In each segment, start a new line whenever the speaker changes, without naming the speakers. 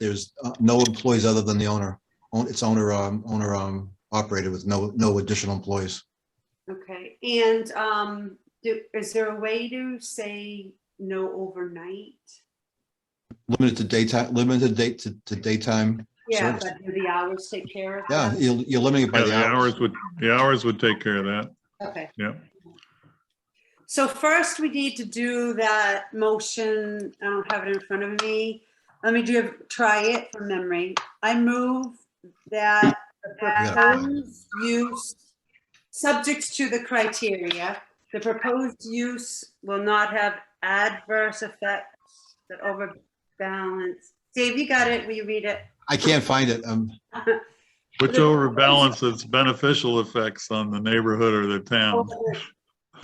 there's uh, no employees other than the owner. Own- It's owner, um, owner, um, operated with no, no additional employees.
Okay, and um, do, is there a way to say no overnight?
Limited to daytime, limited date to, to daytime.
Yeah,
Service.
but do the hours take care of
Yeah,
that?
you're, you're limiting it by
Yeah,
the
the
hours.
hours would, the hours would take care of that.
Okay.
Yeah.
So first, we need to do that motion. I don't have it in front of me. Let me do, try it from memory. I move that the
Yeah, right.
proposed use, subject to the criteria, the proposed use will not have adverse effects that overbalance. Dave, you got it? Will you read it?
I can't find it. Um,
Which overbalances beneficial effects on the neighborhood or the town.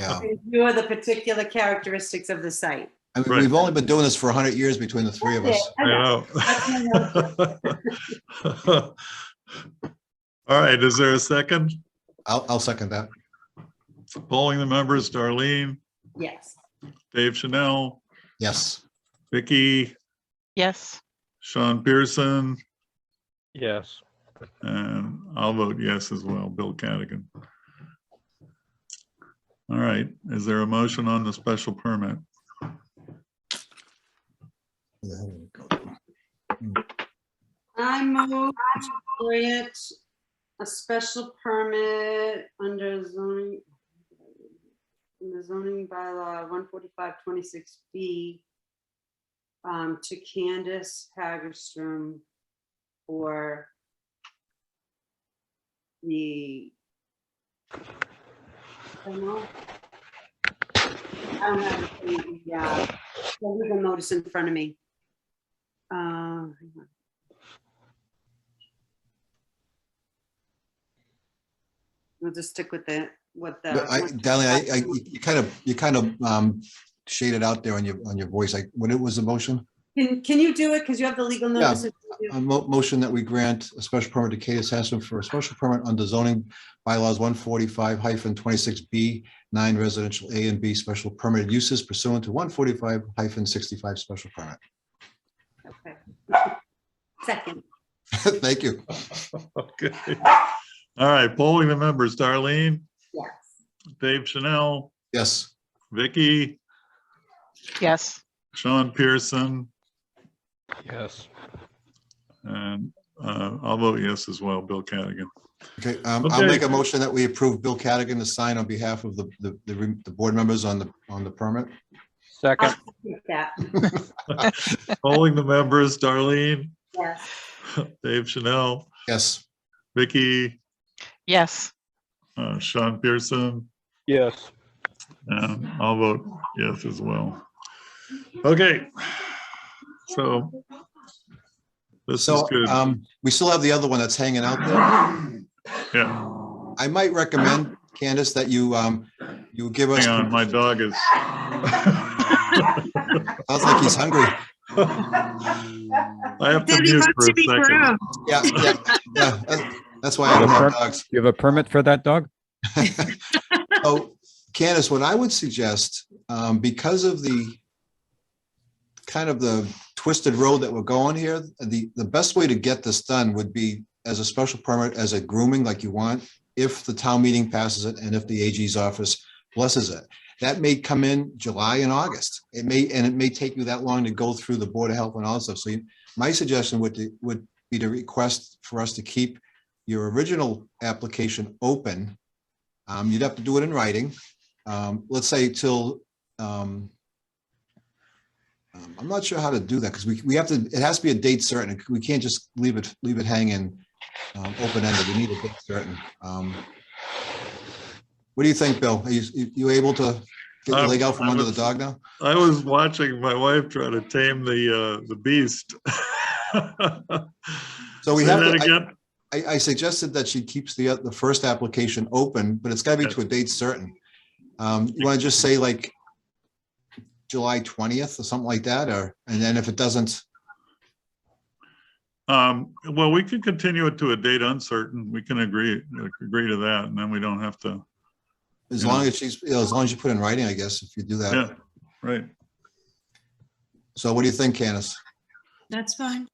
yeah.
You are the particular characteristics of the site.
I mean,
Right.
we've only been doing this for hundred years between the three of us.
I know. All right, is there a second?
I'll, I'll second that.
Polling the members, Darlene,
Yes.
Dave Chanel,
Yes.
Vicky,
Yes.
Sean Pearson,
Yes.
and I'll vote yes as well, Bill Cadigan. All right, is there a motion on the special permit?
I move to grant a special permit under zoning, in the zoning bylaw one forty-five twenty-six B um, to Candace Hagerstrom for the I don't know. I don't have the, yeah, the legal notice in front of me. Uh, hang on. We'll just stick with the, what the.
But I, Darlene, I, I, you kind of, you kind of, um, shaded out there on your, on your voice. Like, what it was the motion?
Can, can you do it? Because you have the legal notice.
A mo- motion that we grant a special permit to Kate Hassan for a special permit under zoning bylaws one forty-five twenty-six B, nine residential A and B special permitted uses pursuant to one forty-five sixty-five special permit.
Okay. Second,
Thank you.
Okay. All right, polling the members, Darlene,
yes.
Dave Chanel,
Yes,
Vicky,
Yes.
Sean Pearson,
Yes.
and uh, I'll vote yes as well, Bill Cadigan.
okay, um, I'll
Okay.
make a motion that we approve Bill Cadigan to sign on behalf of the, the, the, re- the board members on the, on the permit.
Second,
Take That,
Polling the members, Darlene,
yes.
Dave Chanel,
Yes,
Vicky,
Yes.
uh, Sean Pearson,
yes.
and I'll vote yes as well. Okay. So this is
so,
good.
um, we still have the other one that's hanging out there.
Yeah,
I might recommend, Candace, that you, um, you give us.
hang on, my dog is.
Sounds like he's hungry.
I have to mute for a second.
Yeah, yeah, yeah. That's- That's why I don't have dogs.
You have a permit for that dog?
So Oh, Candace, what I would suggest, um, because of the kind of the twisted road that we're going here, the, the best way to get this done would be as a special permit, as a grooming like you want, if the town meeting passes it and if the AG's office blesses it. That may come in July and August. It may, and it may take you that long to go through the Board of Health and all that stuff. So you- my suggestion would, to- would be to request for us to keep your original application open um, you'd have to do it in writing. Um, let's say till, um, um, I'm not sure how to do that because we, we have to, it has to be a date certain. We can't just leave it, leave it hanging, um, open ended. We need a date certain. Um, what do you think, Bill? Are you, you- you able to get the
Um,
leg out from
I
under the
was-
dog now?
I was watching my wife try to tame the, uh, the beast.
So we
Say
have
that
to- I-
again?
I, I suggested that she keeps the, uh, the first application open, but it's gotta be
Yeah.
to a date certain. Um, you wanna just say like July twentieth or something like that, or, and then if it doesn't,
Um, well, we can continue it to a date uncertain. We can agree, agree to that, and then we don't have to,
as
Yeah.
long as she's, you know, as long as you put in writing, I guess, if you do
yeah,
that.
right.
So what do you think, Candace?
That's fine.